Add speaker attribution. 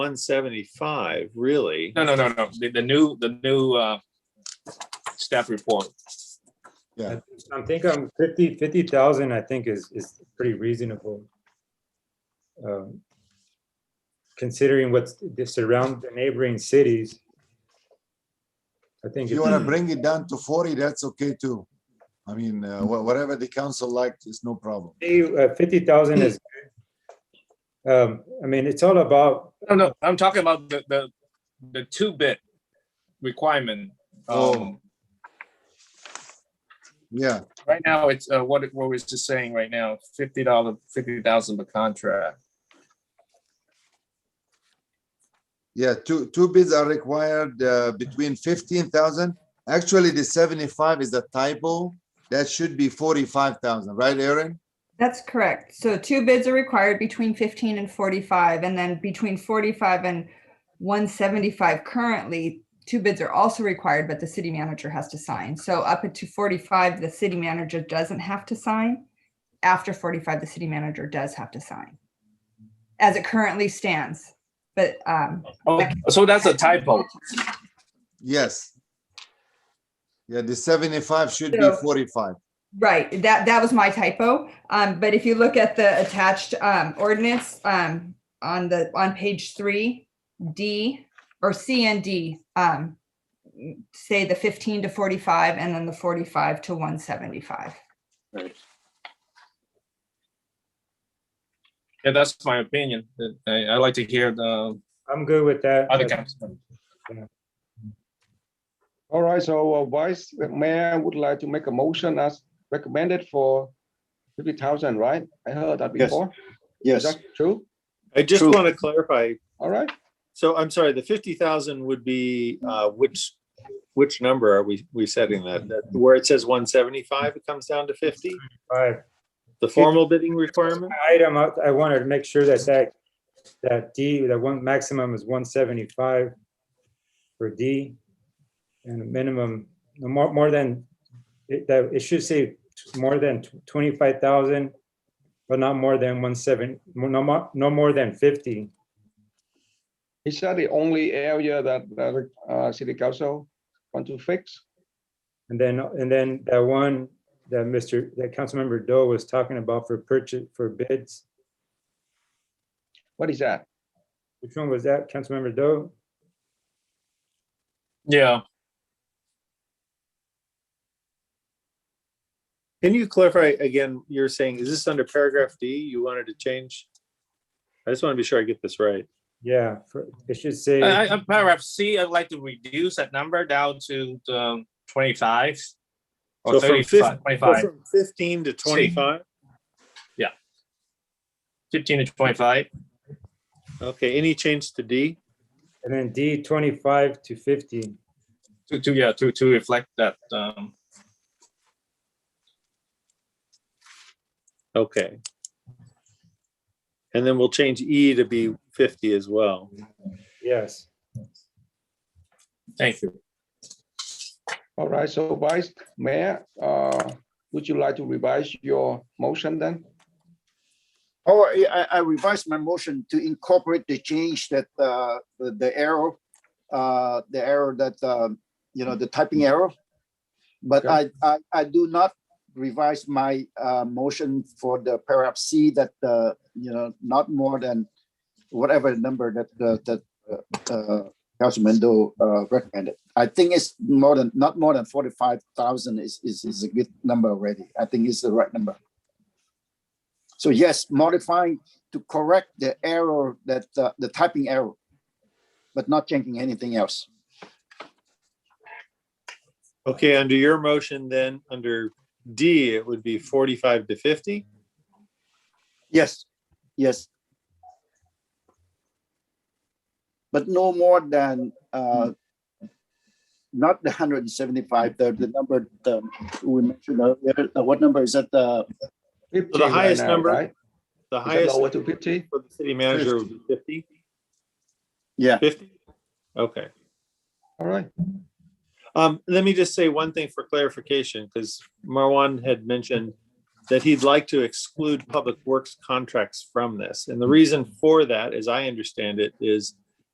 Speaker 1: one seventy-five, really?
Speaker 2: No, no, no, no. The, the new, the new, uh, staff report.
Speaker 3: Yeah,
Speaker 4: I think I'm fifty, fifty thousand, I think is, is pretty reasonable. Um, Considering what's the surround, the neighboring cities. I think.
Speaker 3: if you want to bring it down to 40, that's okay too. I mean, uh, wha- whatever the council liked is no problem.
Speaker 4: uh, Fifty thousand is. good. Um, I mean, it's all about,
Speaker 2: No, no, I'm talking about the, the, the two-bit requirement. Um,
Speaker 1: Oh.
Speaker 3: Yeah,
Speaker 2: right now, it's, uh, what, it- what was just saying right now, fifty dollar, fifty thousand per contract.
Speaker 3: yeah, two, two bids are required uh, between 15,000. Actually, the 75 is a typo. That should be 45,000, right, Aaron?
Speaker 5: That's correct. So two bids are required between 15 and 45, and then between 45 and 175 currently, two bids are also required, but the city manager has to sign. So up to 45, the city manager doesn't have to sign. After 45, the city manager does have to sign. As it currently stands, but um.
Speaker 2: Oh, so that's a typo.
Speaker 3: Yes. Yeah, the 75 should be
Speaker 5: So-
Speaker 3: 45.
Speaker 5: Right, that, that was my typo. Um, but if you look at the attached, um, ordinance, um, on the, on page three, D or C and D, um, say the fifteen to forty-five and then the forty-five to one seventy-five.
Speaker 2: Yeah, that's my opinion. I, I like to hear the
Speaker 4: I'm good with that.
Speaker 2: other councilmen.
Speaker 6: All right, so uh, Vice Mayor would like to make a motion as recommended for fifty thousand, right? I heard that
Speaker 7: Yes.
Speaker 6: before. Is
Speaker 7: Yes,
Speaker 6: that true?
Speaker 1: I just
Speaker 7: True.
Speaker 1: want to clarify,
Speaker 6: All right,
Speaker 1: so I'm sorry, the fifty thousand would be, uh, which, which number are we, we setting that? That, where it says one seventy-five, it comes down to fifty?
Speaker 4: Five.
Speaker 1: The formal bidding requirement?
Speaker 4: item, I I wanted to make sure that that, that D, that one maximum is one seventy-five for D. And a minimum, no more, more than, it, that, it should say t- more than twenty-five thousand, but not more than one seven, no more, no more than fifty.
Speaker 6: is that the only area that the uh, city council want to fix?
Speaker 4: And then, and then that one that Mr., that Councilmember Doe was talking about for purchase, for bids.
Speaker 6: What is that?
Speaker 4: Which one was that, Councilmember Doe?
Speaker 2: Yeah.
Speaker 1: Can you clarify again, you're saying, is this under paragraph D you wanted to change? I just want to be sure I get this right.
Speaker 4: Yeah, for- it should say.
Speaker 2: I, I- paragraph C, I'd like to reduce that number down to the twenty-five.
Speaker 1: So
Speaker 2: Or
Speaker 1: from
Speaker 2: thirty-five,
Speaker 1: 50
Speaker 2: twenty-five,
Speaker 1: From Fifteen to twenty-five?
Speaker 2: fifteen to twenty-five.
Speaker 1: Okay, any change to D?
Speaker 4: And then D twenty-five to fifty.
Speaker 2: To, to, yeah, to, to reflect that, um,
Speaker 1: Okay. And then we'll change E to be fifty as well.
Speaker 4: Yes.
Speaker 2: thank you.
Speaker 6: All right, so Vice Mayor, uh, would you like to revise your motion then?
Speaker 7: oh, I, I- I revised my motion to incorporate the change that, uh, the the arrow, uh, the arrow that, um, you know, the typing arrow. But I, I, I do not revise my, uh, motion for the paragraph C that, uh, you know, not more than whatever number that, uh, that, uh, uh, Councilman Do, uh, recommended. I think it's more than, not more than forty-five thousand is, is, is a good number already. I think it's the right number. So yes, modifying to correct the error that, uh, the typing error, but not changing anything else.
Speaker 1: Okay, under your motion then, under D, it would be forty-five to fifty?
Speaker 7: Yes. Yes. But no more than, uh, not the hundred and seventy-five, the, the number, um we mentioned earlier, uh, what number is that, uh,
Speaker 6: 50
Speaker 1: the
Speaker 6: right
Speaker 1: highest
Speaker 6: now,
Speaker 1: number,
Speaker 6: right?
Speaker 1: The
Speaker 6: Is it
Speaker 1: highest
Speaker 6: lower to
Speaker 1: for
Speaker 6: fifty?
Speaker 1: the city manager would be fifty?
Speaker 7: yeah,
Speaker 1: Fifty? Okay.
Speaker 6: All right,
Speaker 1: Um, let me just say one thing for clarification, because Marwan had mentioned that he'd like to exclude public works contracts from this. And the reason for that, as I understand it, is